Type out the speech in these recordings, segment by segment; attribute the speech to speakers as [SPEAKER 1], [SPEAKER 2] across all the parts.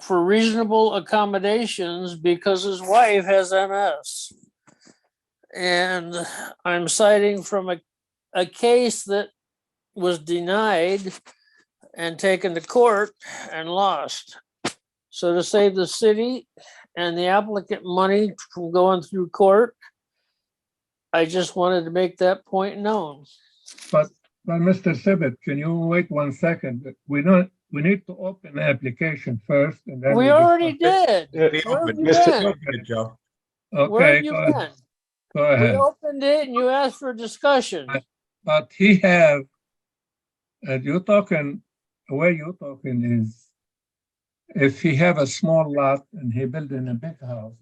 [SPEAKER 1] for reasonable accommodations because his wife has MS. And I'm citing from a, a case that was denied and taken to court and lost. So to save the city and the applicant money from going through court, I just wanted to make that point known.
[SPEAKER 2] Now, Mr. Sibbett, can you wait one second? We don't, we need to open the application first and then.
[SPEAKER 1] We
[SPEAKER 2] discuss
[SPEAKER 1] already
[SPEAKER 2] it.
[SPEAKER 1] did.
[SPEAKER 3] Yeah,
[SPEAKER 1] Where have you
[SPEAKER 3] Mr.
[SPEAKER 1] been?
[SPEAKER 3] Open it, Joe.
[SPEAKER 1] Where
[SPEAKER 2] Okay,
[SPEAKER 1] have you
[SPEAKER 2] go-
[SPEAKER 1] been?
[SPEAKER 2] go
[SPEAKER 1] We
[SPEAKER 2] ahead.
[SPEAKER 1] opened it and you asked for discussion.
[SPEAKER 2] But he have, uh, you're talking, where you're talking is if he have a small lot and he building a big house.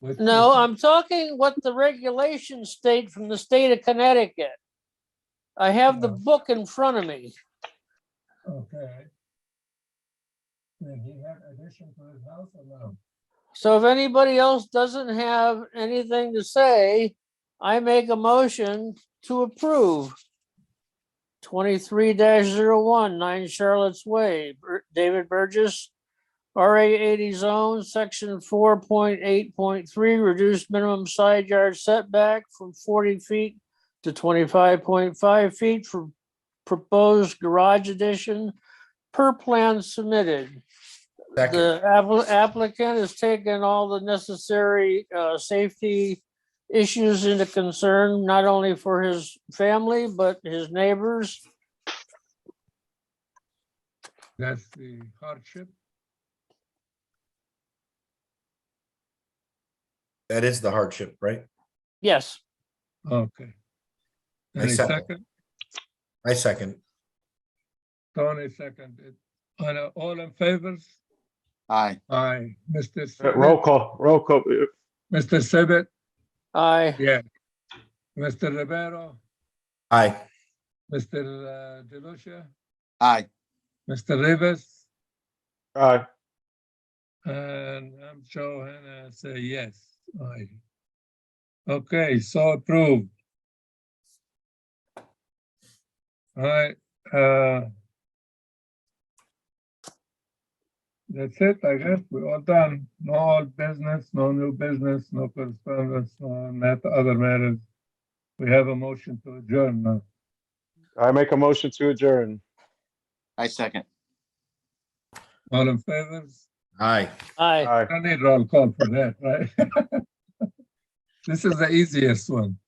[SPEAKER 2] which is-
[SPEAKER 1] No, I'm talking what the regulations state from the state of Connecticut. I have the
[SPEAKER 2] Yeah.
[SPEAKER 1] book in front of me.
[SPEAKER 2] Okay. Then he have addition to his house or no?
[SPEAKER 1] So if anybody else doesn't have anything to say, I make a motion to approve. Twenty-three one nine Charlotte's Way, Bur- David Burgess. RA eighty zone, section four point eight point three, reduced minimum side yard setback from forty feet to twenty-five point five feet for proposed garage addition per plan submitted.
[SPEAKER 3] Second.
[SPEAKER 1] The appli- applicant has taken all the necessary uh, safety issues into concern, not only for his family, but his neighbors.
[SPEAKER 2] That's the hardship.
[SPEAKER 3] That is the hardship, right?
[SPEAKER 1] Yes,
[SPEAKER 2] Okay.
[SPEAKER 3] I
[SPEAKER 2] Any
[SPEAKER 3] second.
[SPEAKER 2] second,
[SPEAKER 3] I second.
[SPEAKER 2] Tony seconded. And uh, all in favors?
[SPEAKER 4] Aye.
[SPEAKER 2] Aye. Mr.
[SPEAKER 5] Uh,
[SPEAKER 2] Sibbett-
[SPEAKER 5] Roll call, roll call. Uh,
[SPEAKER 2] Mr. Sibbett?
[SPEAKER 1] I,
[SPEAKER 2] Yeah. Mr. Rivero?
[SPEAKER 3] Aye.
[SPEAKER 2] Mr. uh, DeLucia?
[SPEAKER 4] Aye.
[SPEAKER 2] Mr. Rivers?
[SPEAKER 5] Aye.
[SPEAKER 2] And I'm Joe and I say yes. Aye. Okay, so approved. All right, uh. That's it, I guess. We're all done. No old business, no new business, no correspondence, no not other matters. We have a motion to adjourn now.
[SPEAKER 5] I make a motion to adjourn.
[SPEAKER 4] I second.
[SPEAKER 2] All in favor?
[SPEAKER 3] Aye.
[SPEAKER 1] I.
[SPEAKER 5] Aye.
[SPEAKER 2] I need roll call for that, right? This is the easiest one.